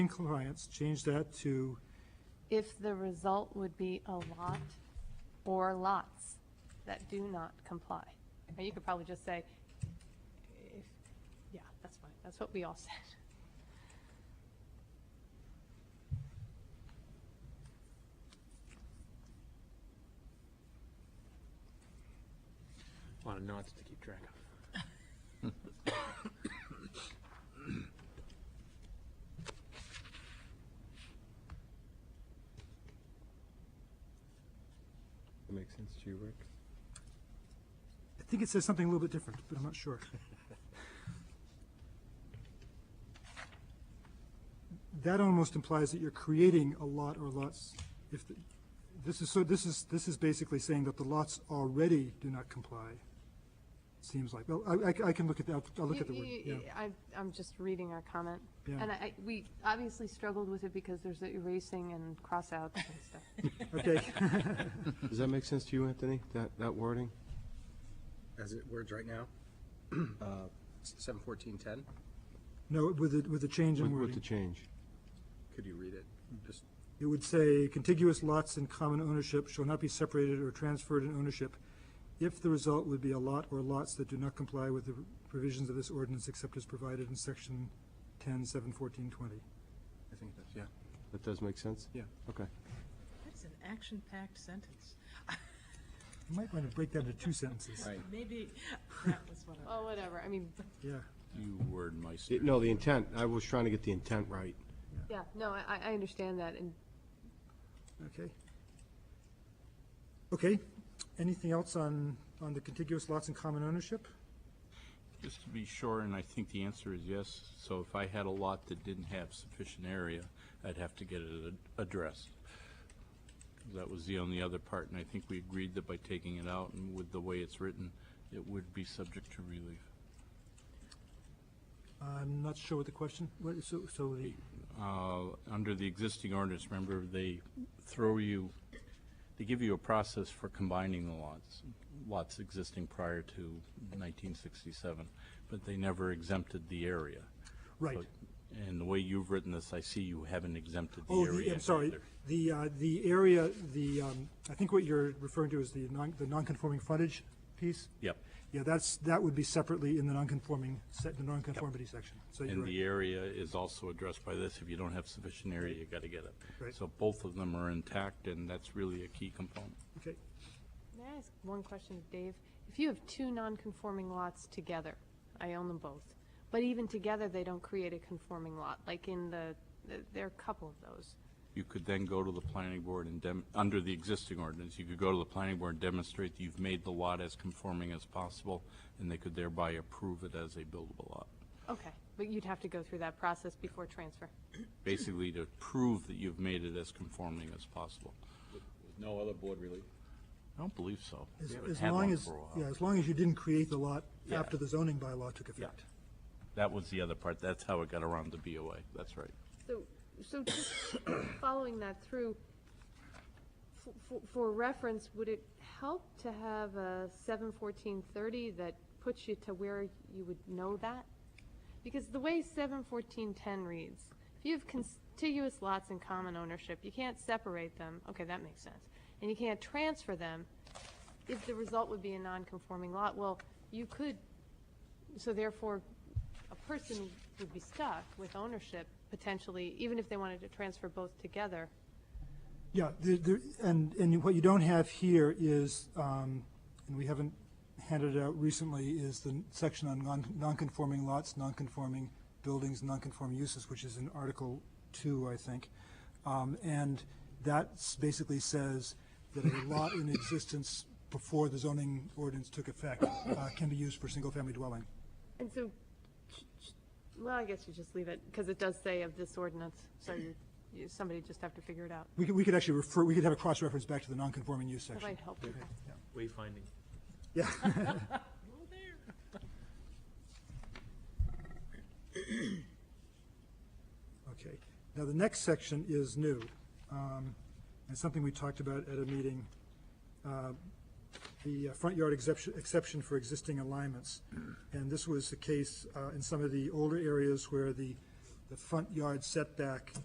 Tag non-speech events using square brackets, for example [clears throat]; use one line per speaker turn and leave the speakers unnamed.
in compliance, change that to,
if the result would be a lot or lots that do not comply. Now, you could probably just say, if, yeah, that's fine, that's what we all said.
A lot of knots to keep track of.
That makes sense to you, Rick?
I think it says something a little bit different, but I'm not
[laughs]
sure. That almost implies that you're creating a lot or lots. If, the- this is, so this is, this is basically saying that the lots already do not comply, seems like. Well, I, I- I can look at that, I'll look at the word,
You-
yeah.
you- I, I'm just reading our comment.
Yeah.
And I, I- we obviously struggled with it because there's the erasing and cross-outs and stuff.
[laughs] Okay, [laughs]
Does that make sense to you, Anthony, that, that wording?
As it words right now, [clears throat] uh, seven fourteen ten,
no, with the, with the change
With
in
with the
wording.
change?
could you read it? Just,
It would say contiguous lots in common ownership shall not be separated or transferred in ownership if the result would be a lot or lots that do not comply with the provisions of this ordinance except as provided in section ten, seven, fourteen, twenty.
I think that's, yeah.
That does make sense?
Yeah.
Okay.
That's an action-packed sentence.
You might want to break that into two sentences.
Maybe that was what I,
Oh, whatever, I mean,
Yeah,
You word meister.
It- No, the intent, I was trying to get the intent right.
yeah, no, I, I understand that, and
okay. Okay, anything else on, on the contiguous lots in common ownership?
Just to be sure, and I think the answer is yes, so if I had a lot that didn't have sufficient area, I'd have to get it ad- addressed. That was the only other part, and I think we agreed that by taking it out and with the way it's written, it would be subject to relief.
I'm not sure what the question, what, so, so the,
uh, under the existing ordinance, remember, they throw you, they give you a process for combining the lots, lots existing prior to 1967, but they never exempted the area.
right.
So- And the way you've written this, I see you haven't exempted the
Oh,
area.
the, I'm sorry,
either.
the, uh, the area, the, um, I think what you're referring to is the non, the non-conforming frontage piece?
Yep.
Yeah, that's, that would be separately in the non-conforming, set, the non-conformity section, so you're
And
right.
the area is also addressed by this. If you don't have sufficient area, you got to get it.
Right.
So both of them are intact, and that's really a key component.
Okay,
May I ask one question, of Dave? If you have two non-conforming lots together, I own them both, but even together, they don't create a conforming lot, like in the, the- there are a couple of those.
You could then go to the planning board and dem, under the existing ordinance, you could go to the planning board and demonstrate that you've made the lot as conforming as possible, and they could thereby approve it as a buildable lot.
Okay, but you'd have to go through that process before transfer.
Basically to prove that you've made it as conforming as possible.
No other board relief?
I don't believe so.
as,
We haven't
as
had one
long as,
for a while.
yeah, as long as you didn't create the lot
Yeah.
after the zoning bylaw took effect.
That was the other part. That's how it got around the BOA. That's right.
So, so just following that through, f- f- for reference, would it help to have a seven fourteen thirty that puts you to where you would know that? Because the way seven fourteen ten reads, if you have contiguous lots in common ownership, you can't separate them, okay, that makes sense, and you can't transfer them, if the result would be a non-conforming lot, well, you could, so therefore, a person would be stuck with ownership potentially, even if they wanted to transfer both together.
Yeah, there, there, and, and what you don't have here is, um, and we haven't handed it out recently, is the section on non, non-conforming lots, non-conforming buildings, non-conforming uses, which is in Article Two, I think. Um, and that s- basically says that a lot in existence before the zoning ordinance took effect, uh, can be used for single-family dwelling.
And so, ch- ch- well, I guess you just leave it, because it does say of this ordinance, so you, you, somebody just have to figure it out.
We could, we could actually refer, we could have a cross-reference back to the non-conforming use
That
section.
might help people.
Wayfinding.
Yeah.
oh, there.
Okay. Now, the next section is new, um, and something we talked about at a meeting, uh, the uh, front yard exception, exception for existing alignments. And this was the case uh, in some of the older areas where the, the front yard setback